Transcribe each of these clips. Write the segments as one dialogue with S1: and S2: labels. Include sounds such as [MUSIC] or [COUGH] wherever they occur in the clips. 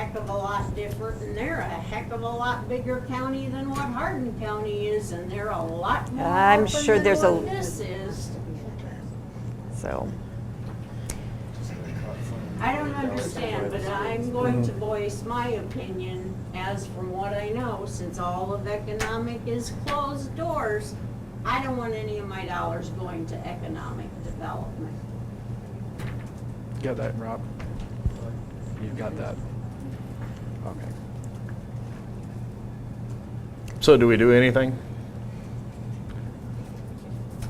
S1: heck of a lot different, and they're a heck of a lot bigger county than what Hardin County is, and they're a lot more
S2: I'm
S1: open
S2: sure
S1: than
S2: there's a-
S1: what This is,
S2: so.
S1: I don't understand, but I'm going to voice my opinion as from what I know, since all of economic is closed doors, I don't want any of my dollars going to economic development.
S3: Got that, Rob? You got that? Okay.
S4: So do we do anything?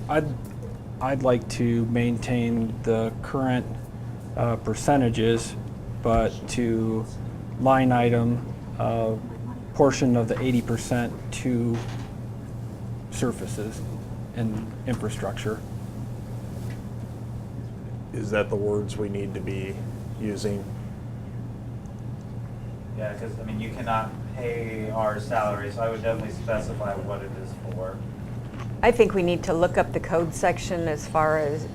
S3: I'd, I'd like to maintain the current uh, percentages, but to line item a portion of the 80% to surfaces and infrastructure.
S4: Is that the words we need to be using?
S5: Yeah, because, I mean, you cannot pay our salary, so I would definitely specify what it is for.
S2: I think we need to look up the code section as far as,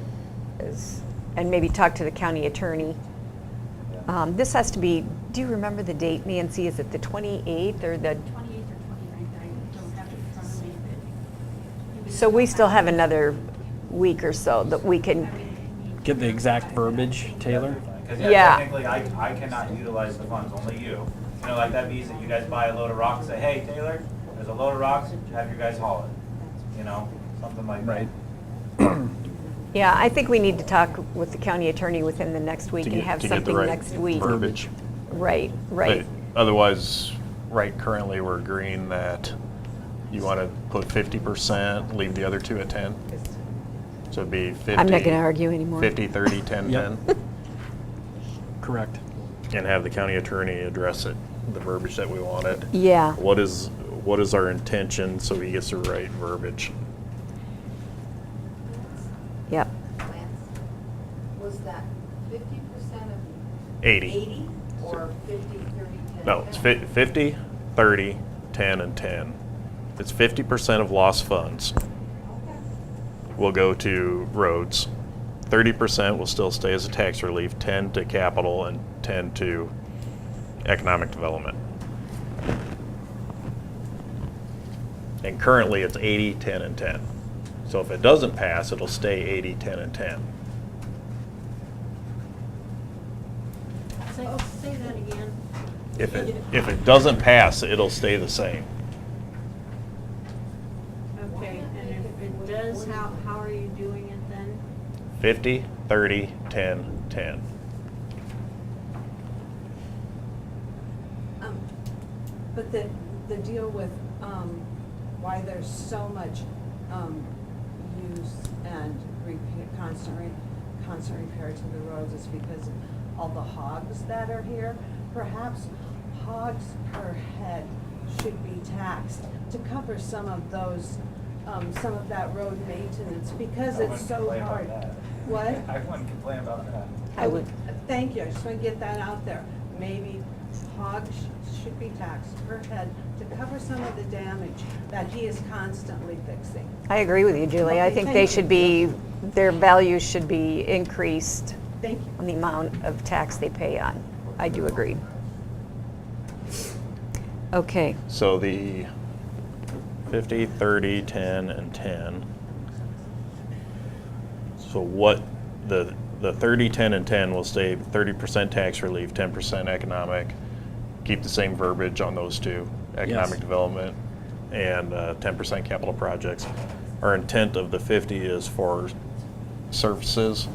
S2: as, and maybe talk to the county attorney.
S5: Yeah.
S2: Um, this has to be, do you remember the date, Nancy? Is it the 28th or the,
S6: 28th or 29th, I don't have it in front of me, but. it was-
S2: so we still have another week or so that we can,
S3: Get the exact verbiage, Taylor?
S5: Because,
S2: Yeah.
S5: yeah, technically, I, I cannot utilize the funds, only you. You know, like, that means that you guys buy a load of rocks, say, hey, Taylor, there's a load of rocks, have your guys haul it, you know, something like that.
S3: Right.
S2: yeah, I think we need to talk with the county attorney within the next week
S4: to
S2: and
S4: get-
S2: have
S4: to get the
S2: something
S4: right
S2: next week.
S4: Verbiage.
S2: Right, right.
S4: But Otherwise, right currently, we're agreeing that you want to put fifty percent, leave the other two at ten? So it'd be fifty.
S2: I'm not going to argue anymore.
S4: 50, 30, 10,
S3: Yep.
S4: [LAUGHS] 10,
S3: Correct.
S4: and have the county attorney address it, the verbiage that we wanted.
S2: Yeah,
S4: What is, what is our intention so he gets the right verbiage?
S2: yep.
S7: Was that fifty percent of
S4: Eighty?
S7: eighty or fifty, thirty, ten?
S4: No, it's fif- 50, 30, 10, and 10. It's 50% of lost funds will go to roads. 30% will still stay as a tax relief, 10 to capital, and 10 to economic development. And currently, it's 80, 10, and 10. So if it doesn't pass, it'll stay 80, 10, and 10.
S1: Say, say that again.
S4: If it, if it doesn't pass, it'll stay the same.
S1: Okay, and if it does, how, how are you doing it then?
S4: 50, 30, 10, 10.
S7: Um, But the, the deal with, um, why there's so much, um, use and repair, constant, re- constant repair to the roads is because of all the hogs that are here. Perhaps hogs per head should be taxed to cover some of those, um, some of that road maintenance because
S5: I
S7: it's
S5: wouldn't
S7: so
S5: complain about
S7: hard.
S5: that.
S7: What?
S5: [LAUGHS] I wouldn't complain about that.
S2: I would-
S7: Thank you, I just want to get that out there. Maybe hogs sh- should be taxed per head to cover some of the damage that he is constantly fixing.
S2: I agree with you, Julie. I
S7: Okay,
S2: think
S7: thank
S2: they
S7: you.
S2: should be, their values should be increased
S7: Thank you.
S2: on the amount of tax they pay on. I do agree. Okay,
S4: So the 50, 30, 10, and 10. So what, the, the 30, 10, and 10 will stay 30% tax relief, 10% economic, keep the same verbiage on those two, economic
S3: Yes.
S4: development and uh, 10% capital projects. Our intent of the 50 is for surfaces,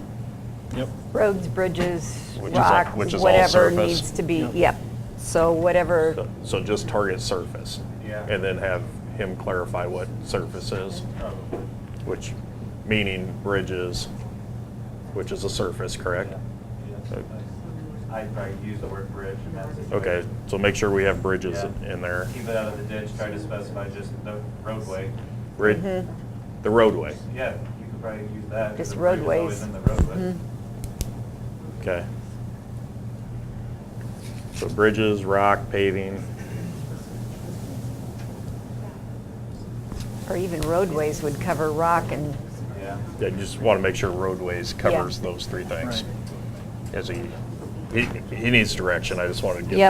S3: Yep.
S2: roads, bridges,
S4: Which is all-
S2: rock,
S4: which is all
S2: whatever
S4: surface.
S2: needs to be,
S3: Yep.
S2: yep. So whatever,
S4: so- so just target surface.
S5: Yeah.
S4: And then have him clarify what surface is.
S5: Probably.
S4: which meaning bridges, which is a surface, correct?
S5: Yeah. Yes, I- I'd probably use the word bridge in that situation.
S4: Okay, so make sure we have bridges
S5: Yeah.
S4: in there.
S5: Keep it out of the ditch, try to specify just the roadway.
S4: Brid-
S2: Mm-hmm.
S4: The roadway,
S5: Yeah, you could probably use that. 'cause
S2: Just
S5: the bridge is always
S2: roadways.
S5: in the roadway.
S2: Mhm.
S4: okay. So bridges, rock, paving,
S2: or even roadways would cover rock and,
S5: Yeah.
S4: I just want to make sure roadways covers those three things.
S3: Right.
S4: As he, he, he needs direction, I just wanted to get
S2: Yep.